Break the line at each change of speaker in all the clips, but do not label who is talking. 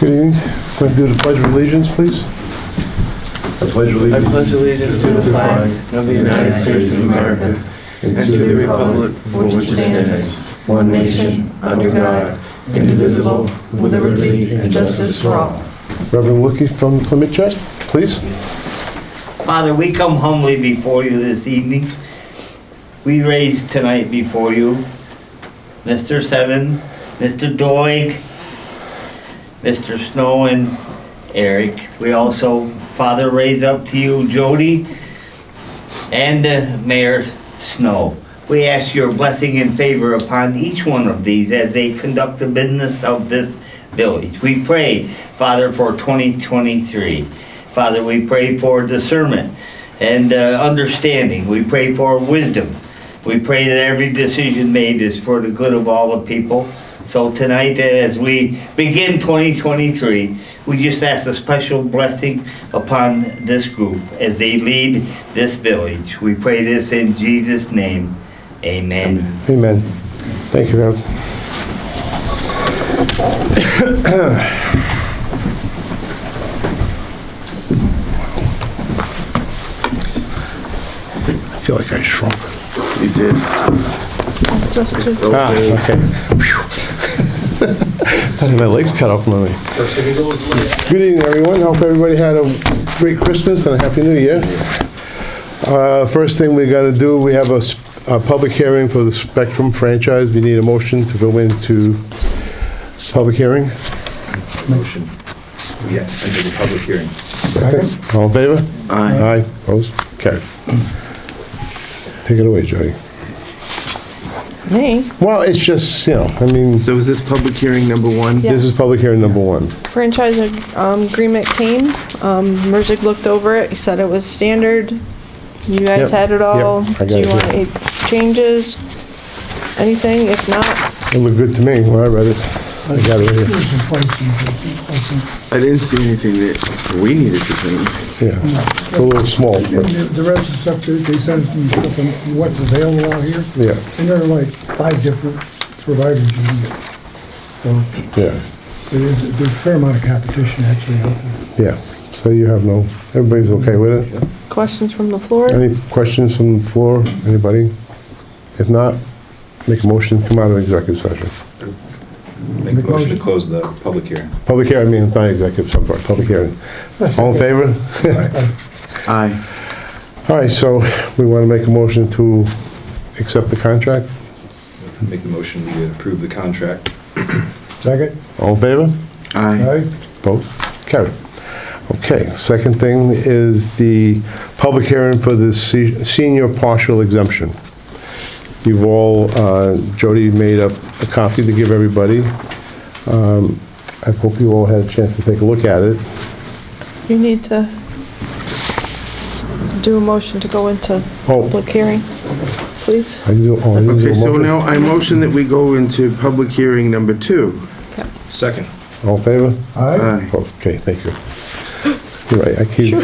Good evening. Can I do the pledge of allegiance, please? I pledge
I pledge allegiance to the flag of the United States of America and to the republic for which it stands, one nation, under God, indivisible, with liberty and justice for all.
Reverend Wookie from Plymouth Church, please.
Father, we come humbly before you this evening. We raise tonight before you Mr. Seven, Mr. Doig, Mr. Snow, and Eric. We also, Father, raise up to you Jody and uh, Mayor Snow. We ask your blessing and favor upon each one of these as they conduct the business of this village. We pray, Father, for 2023. Father, we pray for discernment and uh, understanding. We pray for wisdom. We pray that every decision made is for the good of all the people. So tonight, as we begin 2023, we just ask a special blessing upon this group as they lead this village. We pray this in Jesus' name. Amen.
Amen. Thank you, Reverend. I feel like I shrunk.
You did.
Just to
Ah, okay. I had uh, my legs cut off my way. Good evening, everyone. Hope everybody had a great Christmas and a Happy New Year. Uh, First thing we're going to do, we have a s- a public hearing for the Spectrum franchise. We need a motion to go into public hearing.
Motion. Yeah, under the public hearing.
All in favor?
Aye.
Aye. Opposed? Carried. Take it away, Jody.
me,
Well, it's just, you know, I mean,
So is this public hearing number one?
Yeah.
this is public hearing number one.
franchise um, agreement came, um, Merzick looked over it, he said it was standard, you
Yep,
guys had it all,
yep, I got
do you
it
want
here.
any changes, anything, if not,
It looked good to me when I read it. I got it right here.
I didn't see anything that we needed to change.
Yeah, it's a little small,
And
but,
the the rest of the stuff, that they send us me stuff on what's available out here,
yeah,
and there are like five different providers you can get. So
yeah,
there is, there's a fair amount of competition actually out there.
yeah. So you have no, everybody's okay with it?
questions from the floor?
Any questions from the floor, anybody? If not, make a motion, come out of executive session.
Make a motion to close the public hearing.
Public hearing, I mean, not executive, some part, public hearing. All in favor?
Aye.
All right, so we want to make a motion to accept the contract?
Make the motion to approve the contract.
Second,
All in favor?
all
Aye.
right?
Both? Carried. Okay, second thing is the public hearing for the se- senior partial exemption. You've all, uh, Jody made up a copy to give everybody. Um, I hope you all had a chance to take a look at it.
You need to do a motion to go into
Oh.
public hearing, please?
I didn't do- oh, I didn't do
Okay,
a
so
motion.
now I motion that we go into public hearing number two.
Second.
All in favor?
All right?
Aye.
Opposed? Okay, thank you. You're right, I keep,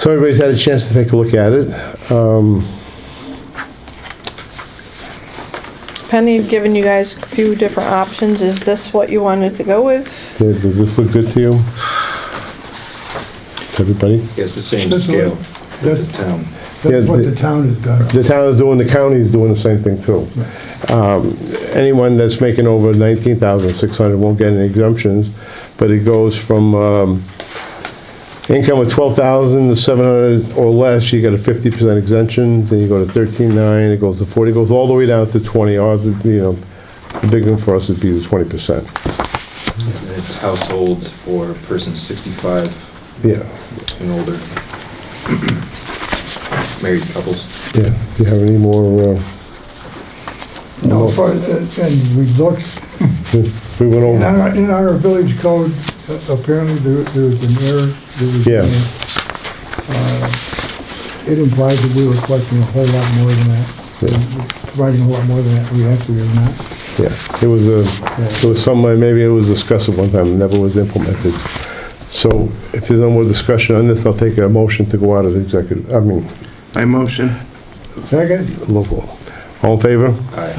so everybody's had a chance to take a look at it. Um,
Penny had given you guys a few different options, is this what you wanted to go with?
Did- Does this look good to you? To everybody?
It's the same
This one?
scale with the town.
That's what
Yeah,
the town has done.
The town is doing, the county is doing the same thing too. Um, Anyone that's making over 19,600 won't get any exemptions, but it goes from um, income of 12,000 to 700 or less, you get a 50% exemption, then you go to 13.9, it goes to 40, it goes all the way down to 20, Ours would be, you know, the big one for us would be the 20%.
And It's households for persons 65
Yeah,
and older. Married couples.
yeah. Do you have any more? uh,
No, for, uh, and we looked,
We went
in
over,
our, in our village code, uh, apparently there, there was an error. There was an
Yeah.
error. Uh, It implies that we were collecting a whole lot more than
Yeah.
that, providing a whole lot more than that we actually are not.
yeah. It was a, it was something, maybe it was discussed at one time, it never was implemented. So if there's no more discussion on this, I'll take a motion to go out of executive, I mean,
I motion.
Second?
local. All in favor?
Aye.